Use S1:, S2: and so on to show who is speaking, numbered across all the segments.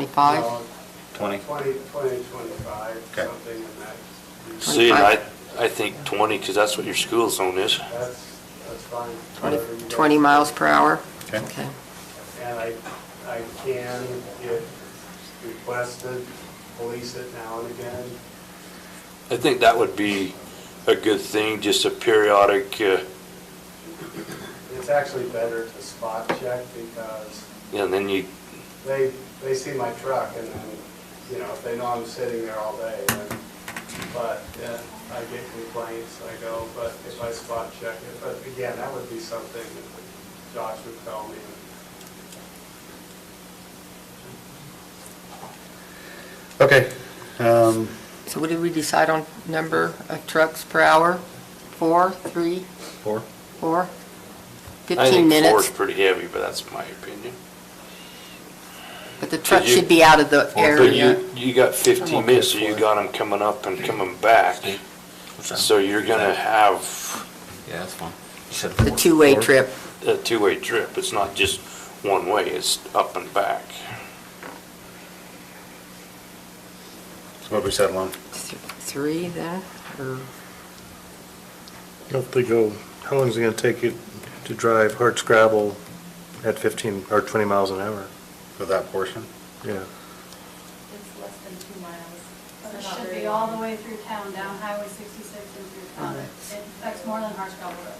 S1: 25?
S2: Twenty.
S3: Twenty, twenty, twenty-five,
S2: Okay.
S3: something in that. region.
S4: See, and I, I think 20, because that's what your school zone is.
S3: That's, that's fine.
S1: Twenty-
S3: Whatever you guys-
S1: 20 miles per hour?
S2: Okay.
S3: And I, I can, if requested, police it now and again.
S4: I think that would be a good thing, just a periodic, uh,
S3: It's actually better to spot check because
S4: and then you,
S3: they, they see my truck and then, you know, if they know I'm sitting there all day, then, but yeah, I get complaints, I go, but if I spot check it, but again, that would be something that Josh would tell me.
S2: Okay. Um,
S1: So what did we decide on number of trucks per hour? Four, three,
S2: Four.
S1: four?
S4: I
S1: 15
S4: think four is
S1: minutes,
S4: pretty heavy, but that's my opinion.
S1: but the truck
S4: you-
S1: should be out of the
S4: But
S1: area.
S4: you, you got
S2: I'm
S4: 15
S2: okay
S4: minutes, so you
S2: for it.
S4: got them coming up and coming back. So you're gonna have
S5: Yeah, that's fine.
S1: The two-way trip.
S4: a two-way trip. It's not just one way, it's up and back.
S2: So what we settle on?
S1: Th- Three then, or
S6: If they go, how long is it going to take you to drive hard scrabble at 15 or 20 miles an hour?
S2: For that portion?
S6: Yeah.
S7: It's less than two miles.
S8: But it
S7: It's not
S8: should
S7: very
S8: be all the
S7: long.
S8: way through town, down Highway 66 and through town. It affects more than Harscalls Road.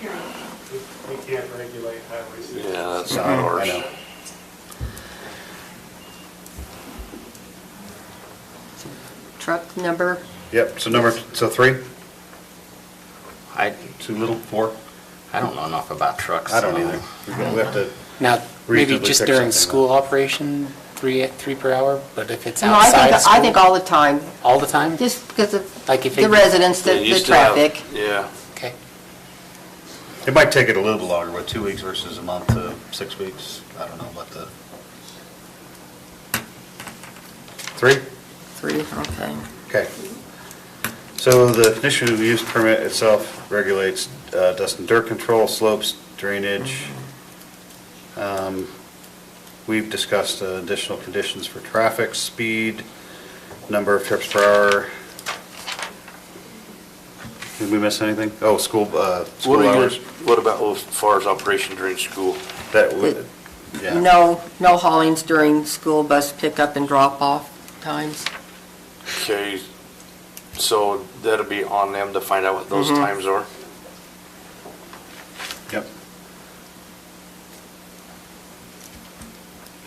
S8: Period.
S3: We we can't regulate highway safety.
S4: Yeah, that's not
S2: Mm-hmm. I
S4: ours.
S2: know.
S1: truck number?
S2: Yep, so number, so three,
S5: I,
S2: too little, four?
S5: I don't know enough about trucks.
S2: I don't
S5: so-
S2: either. We've got- We have to,
S9: Now, maybe
S2: Reasonably
S9: just
S2: pick
S9: during
S2: something
S9: school
S2: up.
S9: operation, three, three per hour, but if it's
S1: No, I
S9: outside of
S1: think,
S9: school?
S1: I think all the time,
S9: All the time?
S1: just because of
S9: Like if
S1: the
S9: it-
S1: residents, the
S4: They
S1: the
S4: used to have-
S1: traffic.
S4: Yeah.
S9: Okay.
S2: it might take it a little bit longer, what, two weeks versus a month to six weeks? I don't know, but the. Three?
S1: Three, okay.
S2: Okay. So the conditional use permit itself regulates uh, dust and dirt control, slopes, drainage. Um, We've discussed uh, additional conditions for traffic, speed, number of trips per hour. Did we miss anything? Oh, school, uh,
S4: What
S2: school
S4: are your,
S2: hours.
S4: what about as far as operation during school?
S2: That would, yeah.
S1: No, no haulings during school bus pickup and drop-off times.
S4: Okay, so that'll be on them to find out what those times are.
S2: Yep.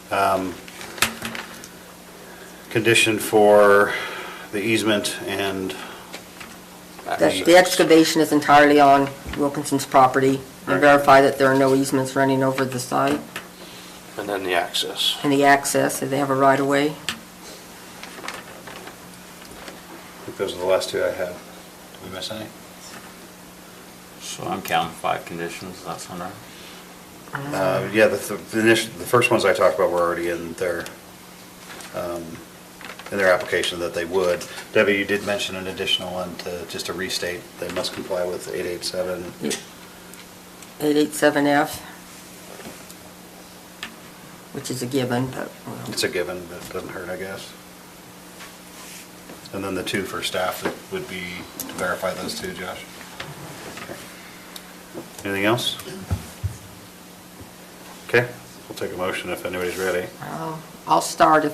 S2: Um, Condition for the easement and,
S1: The the excavation is entirely on Wilkinson's property. And
S2: Right.
S1: verify that there are no easements running over the site
S4: And then the access.
S1: and the access, if they have a right-of-way.
S2: I think those are the last two I had. Did we miss any?
S5: So I'm counting five conditions, does that sound right?
S2: Uh, Yeah, the, th- the initial, the first ones I talked about were already in their, um, in their application that they would. Debbie, you did mention an additional one to, just to restate, they must comply with 887.
S1: 887F, which is a given, but, well,
S2: It's a given, but um, it doesn't hurt, I guess. And then the two for staff that would be to verify those two, Josh. Anything else? Okay, we'll take a motion if anybody's ready.
S1: I'll- I'll start if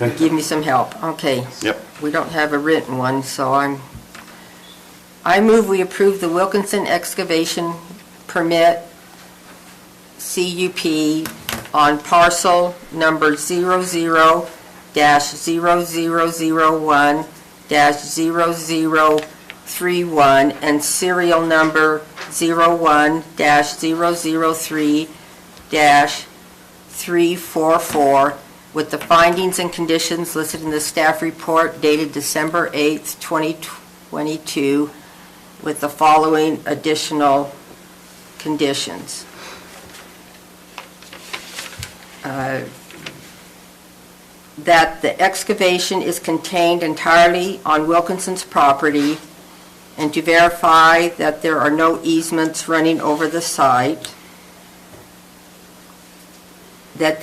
S1: you give me some help. Okay.
S2: Yep.
S1: We don't have a written one, so I'm, I move we approve the Wilkinson excavation permit CUP on parcel number 00-0001-0031 and serial number 01-003-344 with the findings and conditions listed in the staff report dated December 8th, 2022, with the following additional conditions. Uh, That the excavation is contained entirely on Wilkinson's property, and to verify that there are no easements running over the site. That